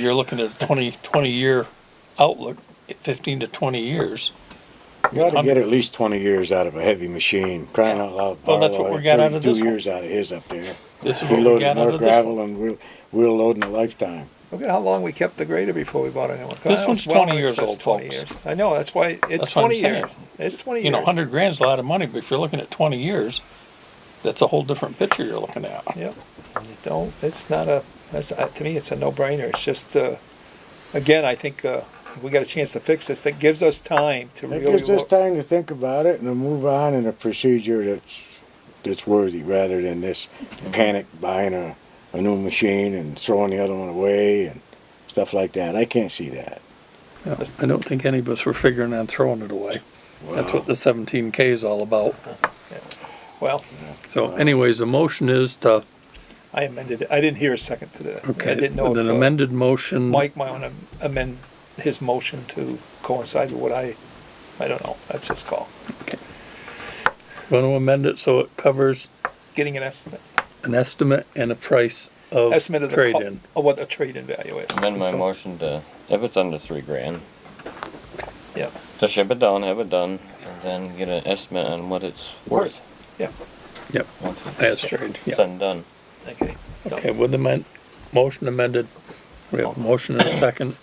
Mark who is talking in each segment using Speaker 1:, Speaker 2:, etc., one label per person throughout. Speaker 1: you're looking at a 20 20 year outlook, fifteen to twenty years.
Speaker 2: You ought to get at least twenty years out of a heavy machine, crying out loud.
Speaker 1: Well, that's what
Speaker 2: Barlow
Speaker 1: we
Speaker 2: had
Speaker 1: got out of
Speaker 2: 32
Speaker 1: this one.
Speaker 2: years out of his up there.
Speaker 1: This is
Speaker 2: We
Speaker 1: what we
Speaker 2: loaded
Speaker 1: got out
Speaker 2: more
Speaker 1: of this one.
Speaker 2: gravel and we're, we're loading a lifetime.
Speaker 3: Look at how long we kept the grader before we bought a new one.
Speaker 1: This
Speaker 3: That
Speaker 1: one's
Speaker 3: was well
Speaker 1: 20
Speaker 3: in
Speaker 1: years
Speaker 3: excess
Speaker 1: old,
Speaker 3: 20
Speaker 1: folks.
Speaker 3: years. I know, that's why, it's
Speaker 1: That's what I'm
Speaker 3: twenty
Speaker 1: saying.
Speaker 3: years. It's twenty years.
Speaker 1: You know, hundred grand's a lot of money, but if you're looking at twenty years, that's a whole different picture you're looking at.
Speaker 3: Yep. And you Don't, it's not a, that's, uh, to me, it's a no-brainer. It's just, uh, again, I think, uh, we got a chance to fix this. That gives us time to
Speaker 2: It
Speaker 3: really
Speaker 2: gives us
Speaker 3: look.
Speaker 2: time to think about it and to move on in a procedure that's, that's worthy, rather than this panic buying a, a new machine and throwing the other one away and stuff like that. I can't see that.
Speaker 1: I don't think any of us were figuring on throwing it away. That's what the seventeen K is all about.
Speaker 3: Well,
Speaker 1: So anyways, the motion is to,
Speaker 3: I amended it. I didn't hear a second to that. I
Speaker 1: okay,
Speaker 3: didn't know
Speaker 1: with an
Speaker 3: if, uh,
Speaker 1: amended motion.
Speaker 3: Mike might wanna amend his motion to coincide with what I, I don't know. That's his call.
Speaker 1: Want to amend it so it covers
Speaker 3: Getting an estimate,
Speaker 1: an estimate and a price of
Speaker 3: estimate of the,
Speaker 1: trade-in.
Speaker 3: co- of what a trade-in value is.
Speaker 4: Amend my
Speaker 3: So,
Speaker 4: motion to, if it's under three grand,
Speaker 3: Yeah,
Speaker 4: to ship it down, have it done, and then get an estimate on what it's worth.
Speaker 3: yeah,
Speaker 1: Yep,
Speaker 4: Once
Speaker 1: as trade,
Speaker 4: it's
Speaker 1: yeah.
Speaker 4: done, done.
Speaker 3: okay. No.
Speaker 1: Okay, with the men, motion amended, we have a motion and a second.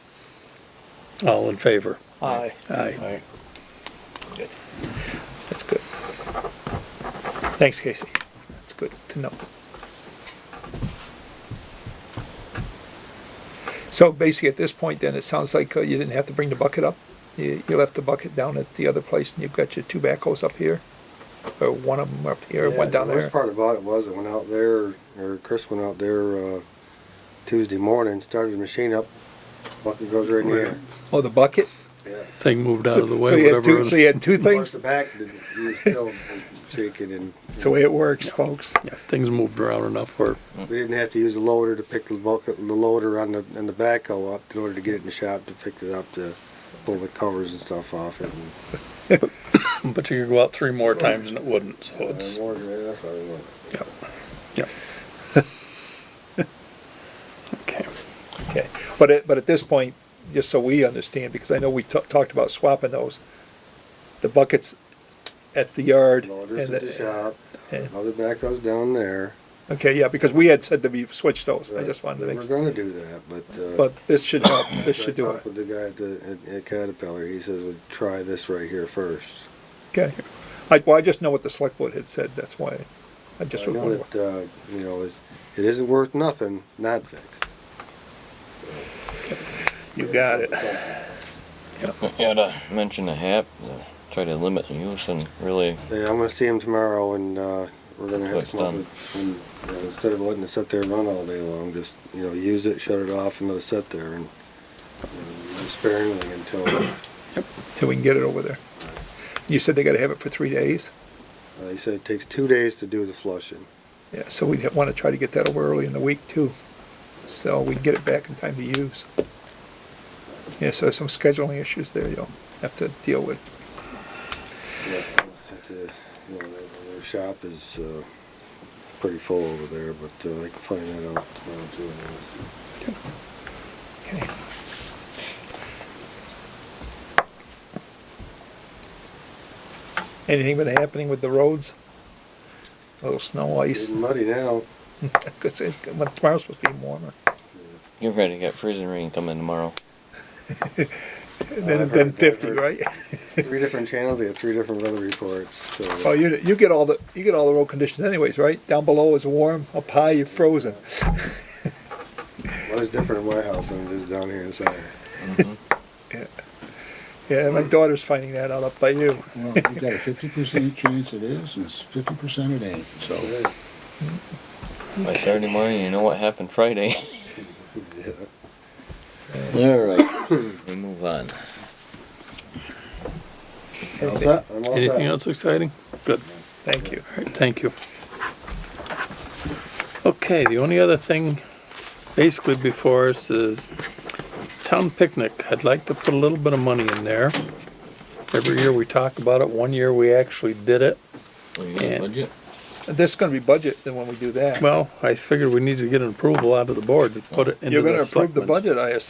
Speaker 1: All in favor?
Speaker 3: Aye,
Speaker 1: Aye.
Speaker 2: Right.
Speaker 3: good. That's good. Thanks, Casey. That's good to know. So basically, at this point then, it sounds like uh, you didn't have to bring the bucket up? You, you left the bucket down at the other place and you've got your two backhoes up here? Or one of them up here,
Speaker 5: Yeah,
Speaker 3: one down
Speaker 5: the
Speaker 3: there?
Speaker 5: worst part about it was I went out there, or Chris went out there uh, Tuesday morning, started the machine up, bucket goes right in the air.
Speaker 3: Oh, the bucket?
Speaker 5: Yeah.
Speaker 1: Thing moved out of the
Speaker 3: So
Speaker 1: way,
Speaker 3: you had
Speaker 1: whatever.
Speaker 3: two,
Speaker 1: it
Speaker 3: so you had two
Speaker 5: Of course,
Speaker 3: things?
Speaker 5: the back did- it was still shaking, and
Speaker 3: That's the way it works, folks.
Speaker 1: was. Yeah, Things moved around enough where,
Speaker 5: we didn't have to use a loader to pick the bucket, the loader on the and the backhoe up in order to get it in the shop to pick it up to pull the covers and stuff off it. And,
Speaker 1: but you could go out three more times and it wouldn't, so it's,
Speaker 5: I ordered it, that's how it went.
Speaker 1: yeah, yeah. Okay,
Speaker 3: Okay, but at, but at this point, just so we understand, because I know we ta- talked about swapping those, the buckets at the yard.
Speaker 5: Loaders
Speaker 3: and
Speaker 5: at the shop,
Speaker 3: yeah.
Speaker 5: other backhoes down there.
Speaker 3: Okay, yeah, because we had said that we switched those, I just wanted to
Speaker 5: We're
Speaker 3: make,
Speaker 5: gonna do that, but. uh,
Speaker 3: but this should help, this
Speaker 5: I
Speaker 3: should do it,
Speaker 5: talked With the guy at the, at- at Caterpillar, he says, well, try this right here first.
Speaker 3: okay. I, well, I just know what the select board had said, that's why, I
Speaker 5: I
Speaker 3: just, was
Speaker 5: know
Speaker 3: wondering.
Speaker 5: that, uh, you know, it's- it isn't worth nothing, not fixed.
Speaker 3: you got it.
Speaker 4: Yeah, to mention a hat, uh, try to limit the use and really,
Speaker 5: Yeah, I'm gonna see him tomorrow and, uh, we're gonna have
Speaker 4: That's
Speaker 5: to come up
Speaker 4: done.
Speaker 5: with, and, you know, instead of letting it sit there and run all day long, just, you know, use it, shut it off and let it sit there and and use sparingly until, uh,
Speaker 3: So we can get it over there. You said they gotta have it for three days,
Speaker 5: he said it takes two days to do the flushing.
Speaker 3: yeah, so we wanna try to get that over early in the week too, so we can get it back in time to use. Yeah, so some scheduling issues there you'll have to deal with.
Speaker 5: Yeah, I have to, you know, their- their shop is, uh, pretty full over there, but, uh, I can find that out tomorrow too. I guess.
Speaker 3: Okay. Anything been happening with the roads? A little snow, ice,
Speaker 5: It's muddy now.
Speaker 3: 'cause it's- well, tomorrow's supposed to be warmer.
Speaker 4: get ready to get freezing rain coming tomorrow.
Speaker 3: Then,
Speaker 5: I've
Speaker 3: then
Speaker 5: Oh, heard- I've
Speaker 3: fifty,
Speaker 5: heard
Speaker 3: right?
Speaker 5: Three different channels, they got three different weather reports. So
Speaker 3: Oh, you, you get all the, you get all the road conditions anyways, right? Down below is warm, up high you're frozen.
Speaker 5: weather's different in my house than it is down here in Saturday.
Speaker 3: Yeah, my daughter's finding that out up by you.
Speaker 6: Well, you got a fifty percent chance it is, and it's fifty percent it ain't, so.
Speaker 4: By Saturday morning, you know what happened Friday.
Speaker 5: Yeah.
Speaker 4: All right, we move on.
Speaker 5: All set? I'm all set.
Speaker 1: anything else exciting? Good.
Speaker 3: Thank you.
Speaker 1: All right, thank you. Okay, the only other thing basically before us is town picnic. I'd like to put a little bit of money in there. Every year we talk about it, one year we actually did it.
Speaker 4: We
Speaker 1: Yeah.
Speaker 4: got budget?
Speaker 3: This is gonna be budget then when we do that.
Speaker 1: Well, I figured we needed to get an approval out of the board to put it into
Speaker 3: You're
Speaker 1: the
Speaker 3: gonna approve the
Speaker 1: selectmen's.
Speaker 3: budget, I assume.